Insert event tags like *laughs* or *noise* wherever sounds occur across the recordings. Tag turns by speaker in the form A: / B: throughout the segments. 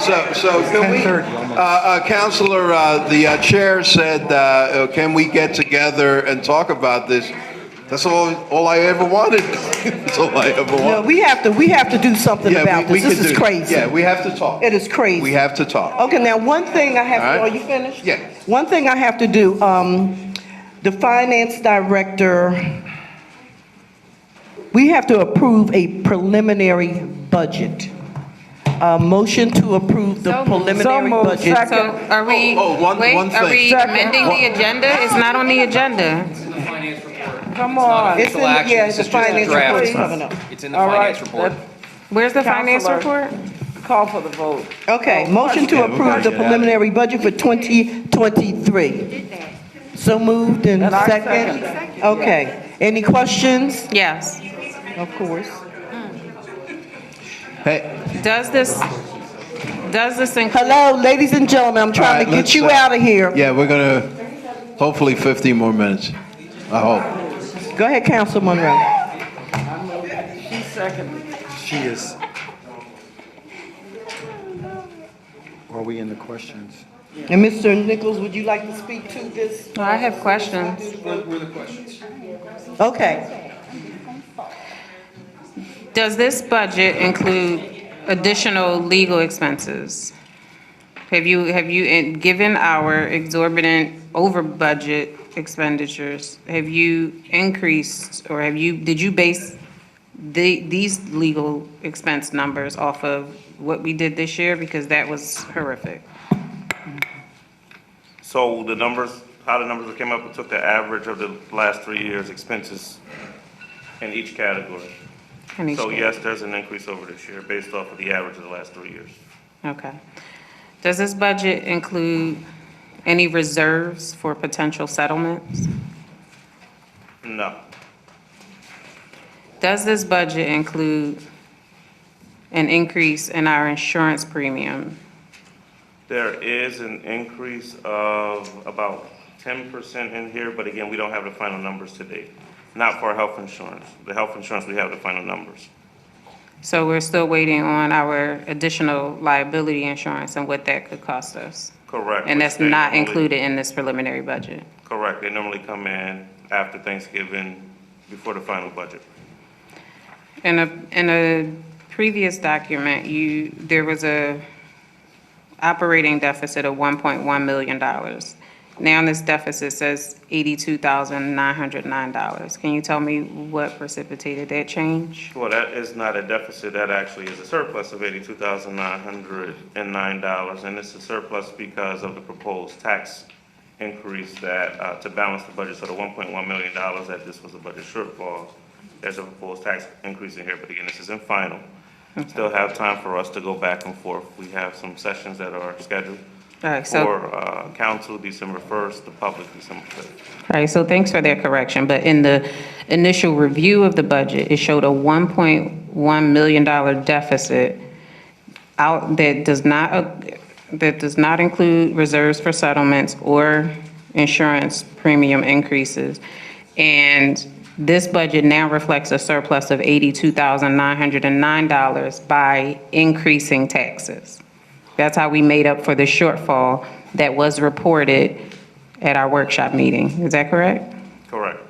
A: So, so can we,
B: 10:30
A: uh, uh, Counselor, uh, the uh, Chair said, uh, uh, can we get together and talk about this? That's all, all I ever wanted. *laughs* That's all I ever
C: No,
A: wanted.
C: we have to, we have to do something
A: Yeah, we-
C: about
A: we
C: this. This
A: could
C: is
A: do-
C: crazy.
A: Yeah, we have to talk.
C: It is Oh. crazy.
A: We have to talk.
C: Okay, now, one thing I have,
A: All
C: are
A: right.
C: you finished?
A: Yeah.
C: One thing I have to do, um, the finance director, we have to approve a preliminary budget. A motion to approve the
D: So moved.
C: preliminary
B: So moved.
C: budget.
B: Second.
D: So are we,
A: Oh, oh, one-
D: wait,
A: one
D: are
A: thing.
D: we
B: Second.
D: amending the agenda? It's not on the agenda.
B: Come on.
C: It's in, the- yeah, it's the finance report is coming up.
E: It's in the
B: All right,
E: finance report.
B: let's
D: Where's the finance
B: Counselor.
D: report?
B: call for the vote.
C: Okay,
B: Oh,
C: motion to
A: Yeah, we gotta
C: approve the
A: get outta
C: preliminary budget for 2023. So moved and
B: And I
C: second? Okay, any questions?
D: Yes.
C: Of course.
A: Hey,
D: Does this, does this include?
C: Hello, ladies and gentlemen, I'm trying to
A: All right,
C: get you
A: let's, uh,
C: out of here.
A: yeah, we're gonna, hopefully 15 more minutes, I hope.
C: Go ahead, Council Monroe.
B: She seconded.
F: She is. Are we in the questions?
C: And Mr. Nichols, would you like to speak to this?
D: I have questions.
C: Okay,
D: Does this budget include additional legal expenses? Have you, have you, and given our exorbitant over budget expenditures, have you increased or have you, did you base the, these legal expense numbers off of what we did this year? Because that was horrific.
G: So the numbers, how the numbers came up, we took the average of the last three years' expenses in each category.
D: And each
G: So
D: year.
G: yes, there's an increase over this year based off of the average of the last three years.
D: Okay. Does this budget include any reserves for potential settlements?
G: No,
D: Does this budget include an increase in our insurance premium?
G: there is an increase of about ten percent in here, but again, we don't have the final numbers today. Not for health insurance. The health insurance, we have the final numbers.
D: So we're still waiting on our additional liability insurance and what that could cost us.
G: Correct.
D: And
G: which
D: that's
G: they
D: not
G: normally-
D: included in this preliminary budget.
G: Correct. They normally come in after Thanksgiving, before the final budget.
D: In a, in a previous document, you, there was a operating deficit of one point one million dollars. Now this deficit says eighty-two thousand nine hundred nine dollars. Can you tell me what precipitated that change?
G: Well, that is not a deficit, that actually is a surplus of eighty-two thousand nine hundred and nine dollars, and it's a surplus because of the proposed tax increase that, uh, to balance the budget, so the one point one million dollars that this was a budget shortfall, there's a proposed tax increase in here, but again, this isn't final. Still have time for us to go back and forth, we have some sessions that are scheduled
D: All right, so-
G: for, uh, council December first, the public December fifth.
D: All right, so thanks for that correction, but in the initial review of the budget, it showed a $1.1 million deficit out, that does not, uh, that does not include reserves for settlements or insurance premium increases. And this budget now reflects a surplus of $82,909 by increasing taxes. That's how we made up for the shortfall that was reported at our workshop meeting. Is that correct?
G: Correct.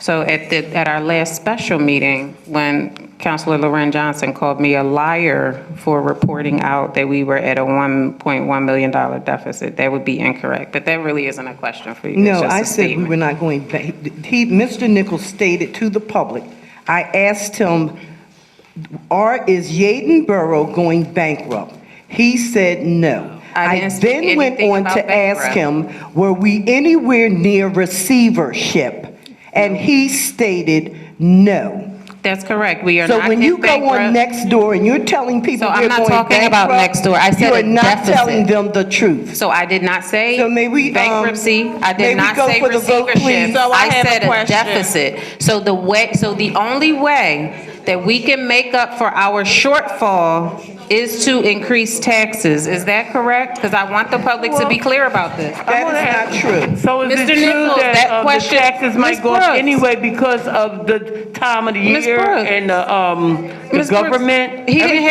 D: So at the, at our last special meeting, when Counselor Loren Johnson called me a liar for reporting out that we were at a $1.1 million deficit, that would be incorrect. But that really isn't a question for you. It's
C: no,
D: just a
C: I said we
D: statement.
C: were not going back. He, Mr. Nichols stated to the public, I asked him, "Are, is Yaden Borough going bankrupt?" He said no.
D: I didn't speak
C: then went
D: anything
C: on
D: about
C: to ask
D: bankrupt.
C: him, were we anywhere near receivership? And he stated no.
D: That's correct. We are
C: So
D: not
C: when
D: in
C: you go on
D: bankrupt.
C: next door and you're telling people
D: So I'm
C: they're
D: not
C: going
D: talking about
C: bankrupt,
D: next door. I said a
C: You're not
D: deficit.
C: telling them the truth.
D: So I did not say
C: So may we, um,
D: bankruptcy. I
C: may we
D: did not
C: go
D: say
C: for the vote, please?
D: receivership.
C: So
D: I
B: have a
D: said a
B: question.
D: deficit. So the way, so the only way that we can make up for our shortfall is to increase taxes. Is that correct? Because I want the public to be clear about this.
C: That is not true.
B: So is it
D: Mr.
B: true
D: Nichols, that
B: that uh, the
D: question-
B: taxes
D: Ms.
B: might go up
D: Brooks.
B: anyway because of the time of the
D: Ms.
B: year
D: Brooks.
B: and the, um, the
D: Ms. Brooks,
B: government?
D: he didn't have